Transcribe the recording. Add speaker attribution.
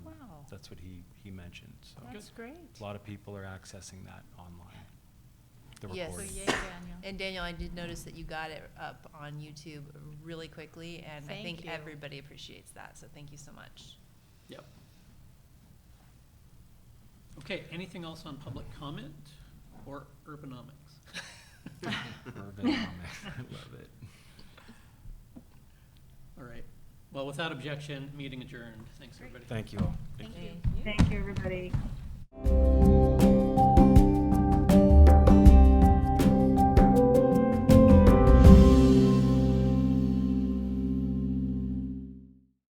Speaker 1: That's what he, he mentioned, so.
Speaker 2: That's great.
Speaker 1: A lot of people are accessing that online, the
Speaker 3: Yes.
Speaker 1: recording.
Speaker 2: So yay, Daniel.
Speaker 3: And Daniel, I did notice that you got it up on YouTube really quickly, and I
Speaker 2: Thank
Speaker 3: think
Speaker 2: you.
Speaker 3: everybody appreciates that, so thank you so much.
Speaker 4: Yep. Okay, anything else on public comment or urbanomics?
Speaker 1: Urbanomics, I love it.
Speaker 4: All right. Well, without objection, meeting adjourned. Thanks, everybody.
Speaker 1: Thank you all.
Speaker 2: Thank
Speaker 3: Thank
Speaker 2: you.
Speaker 3: you.
Speaker 5: Thank you, everybody.